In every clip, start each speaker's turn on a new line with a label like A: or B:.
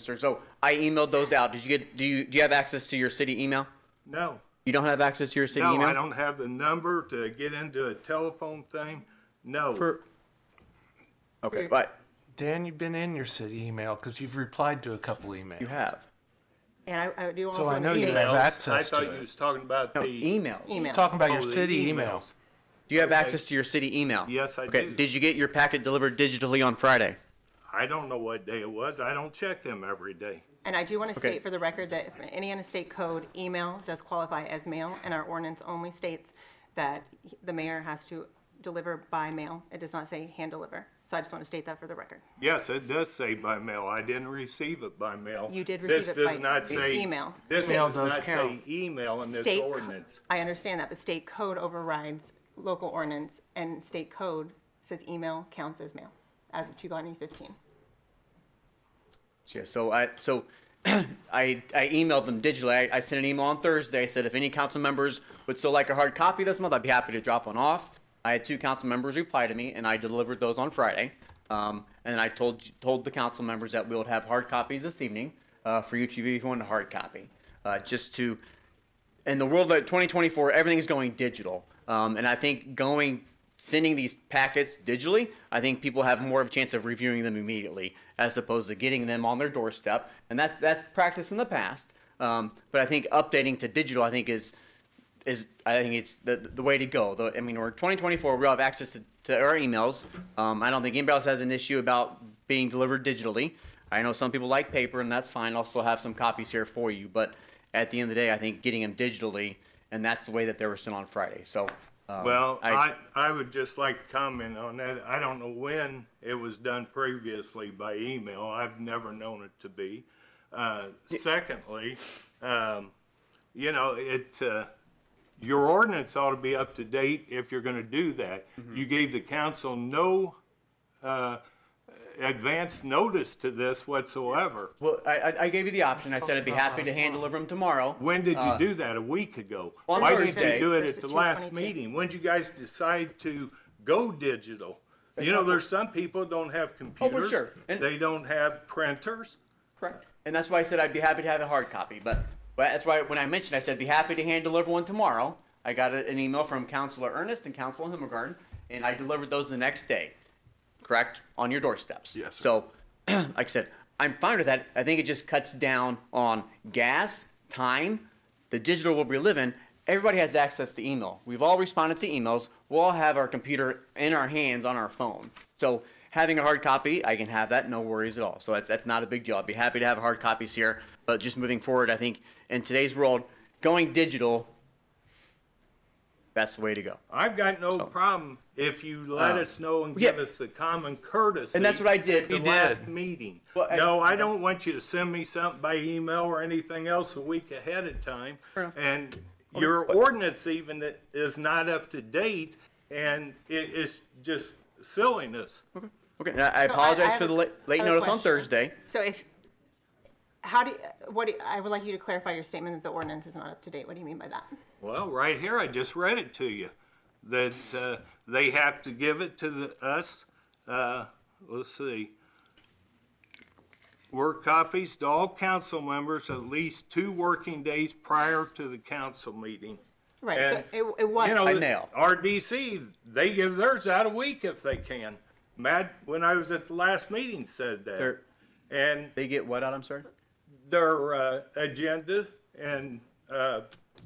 A: sir. So I emailed those out. Did you get? Do you do you have access to your city email?
B: No,
A: You don't have access to your city
B: no,
A: email.
B: I don't have the number to get into a telephone thing. No,
A: For- okay, but
C: Dan, you've been in your city email because you've replied to a couple emails.
A: you have
D: And I, I do also
C: So I
D: want
C: know
D: to
C: you
D: say-
C: have
B: I
C: access to
B: thought you
C: it.
B: was talking about
A: no
B: the,
A: email.
D: email.
C: Talking about
B: Oh,
C: your
B: the
C: city
B: emails.
C: email.
A: Do you have access to your city email?
B: Yes, I
A: okay.
B: do.
A: Did you get your packet delivered digitally on Friday?
B: I don't know what day it was. I don't check them every day.
D: And I do want to
A: Okay.
D: state for the record that Indiana State Code email does qualify as mail, and our ordinance only states that he- the mayor has to deliver by mail. It does not say hand deliver. So I just want to state that for the record.
B: Yes, it does say by mail. I didn't receive it by mail.
D: You did
B: This
D: receive it
B: does
D: by
B: not
D: e-
B: say-
D: email.
B: This
C: Mail
B: does
C: does
B: not say
C: count.
B: email in this
D: State, co-
B: ordinance.
D: I understand that, but state code overrides local ordinance, and state code says email counts as mail, as of 2015.
A: Yeah, so I, so I, I emailed them digitally. I, I sent an email on Thursday. I said if any council members would still like a hard copy this month, I'd be happy to drop one off. I had two council members reply to me, and I delivered those on Friday. Um, and I told told the council members that we would have hard copies this evening uh, for you to view if you want a hard copy, uh, just to in the world of 2024, everything's going digital. Um, and I think going sending these packets digitally, I think people have more of a chance of reviewing them immediately as opposed to getting them on their doorstep. And that's that's practice in the past. Um, but I think updating to digital, I think is is I think it's the the way to go. Though I mean, we're 2024. We all have access to, to our emails. Um, I don't think anybody else has an issue about being delivered digitally. I know some people like paper, and that's fine. I'll still have some copies here for you. But at the end of the day, I think getting them digitally, and that's the way that they were sent on Friday. So, um,
B: Well, I,
A: I-
B: I would just like to comment on that. I don't know when it was done previously by email. I've never known it to be. Uh, secondly, um, you know, it, uh, your ordinance ought to be up to date if you're gonna do that. You gave the council no, uh, advance notice to this whatsoever.
A: well, I- I, I gave you the option. I said I'd be happy to hand deliver them tomorrow.
B: When did you do that? A week ago?
A: Uh, on
B: Why didn't
A: Thursday.
B: you do it at
D: Thursday,
B: the last
D: 222.
B: meeting? When did you guys decide to go digital? You know, there's some people don't have computers.
A: Oh, sure. And-
B: They don't have printers.
A: Correct. And that's why I said I'd be happy to have a hard copy, but, but that's why when I mentioned, I said, be happy to hand deliver one tomorrow. I got a- an email from Counselor Ernest and Counselor Himmelgarn, and I delivered those the next day, correct, on your doorsteps. Yes, So, like I said, I'm fine with that. I think it just cuts down on gas, time, the digital world we live in. Everybody has access to email. We've all responded to emails. We'll all have our computer in our hands on our phone. So having a hard copy, I can have that, no worries at all. So that's that's not a big deal. I'd be happy to have hard copies here, but just moving forward, I think in today's world, going digital, that's the way to go.
B: I've got no problem if you let
A: Uh,
B: us know and
A: yeah.
B: give us the common courtesy.
A: And that's what I did.
B: at The
A: You
B: last
C: did.
B: meeting.
A: Well, I-
B: No, I don't want you to send me something by email or anything else a week ahead of time. And your ordinance even that is not up to date and it is just silliness.
A: Okay, and I I
D: So I-
A: apologize
D: I
A: for
D: have
A: the
D: a-
A: late,
D: I
A: late
D: have a
A: notice on
D: question.
A: Thursday.
D: So if, how do, you- what, do you- I would like you to clarify your statement that the ordinance is not up to date. What do you mean by that?
B: Well, right here, I just read it to you, that uh, they have to give it to the, us, uh, let's see, work copies to all council members at least two working days prior to the council meeting.
D: Right, so
B: And,
D: it, it was.
B: You know,
A: By mail.
B: RDC, they give theirs out a week if they can. Matt, when I was at the last meeting, said that.
A: They're-
B: And
A: They get what out, I'm sorry?
B: their uh, agenda and uh,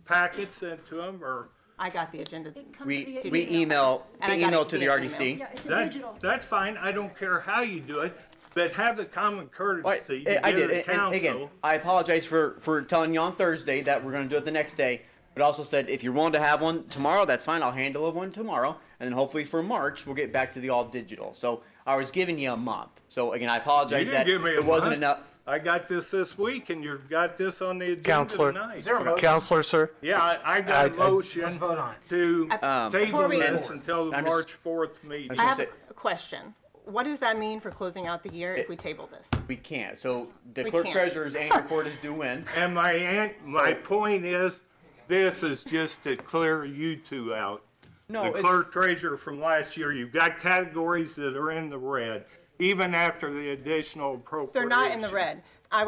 B: packets sent to them are
D: I got the agenda.
E: comes
A: We,
E: via
A: we email,
D: And I got
A: email
D: it
A: to the
D: via
A: RDC.
E: Yeah, it's a
B: That,
E: digital.
B: that's fine, I don't care how you do it, but have the common
A: Well,
B: courtesy
A: I-
B: to
A: I
B: give
A: did.
B: the
A: And, and eh, again,
B: council.
A: I apologize for, for telling you on Thursday that we're going to do it the next day, but also said if you're willing to have one tomorrow, that's fine. I'll handle one tomorrow. And then hopefully for March, we'll get back to the all digital. So I was giving you a month. So again, I
B: You
A: apologize
B: didn't
A: that
B: give me a
A: it wasn't
B: month.
A: enough.
B: I got this this week and you've got this on the agenda
C: Counselor,
B: tonight.
C: counselor, sir.
B: Yeah, I, I got a
C: I- I-
B: motion
F: Let's vote on it.
B: to table
D: Uh, Before we-
B: this until the
A: Um, I'm just-
B: March fourth meeting.
D: I have
A: Say-
D: a a question. What does that mean for closing out the year if we table this?
A: We can't. So the
D: We
A: clerk
D: can't.
A: treasurer's annual report is due when?
B: And my aunt, my point is, this is just to clear you two out.
A: No,
B: The
A: it's-
B: clerk treasurer from last year, you've got categories that are in the red, even after the additional
D: They're
B: appropriation.
D: not in the red.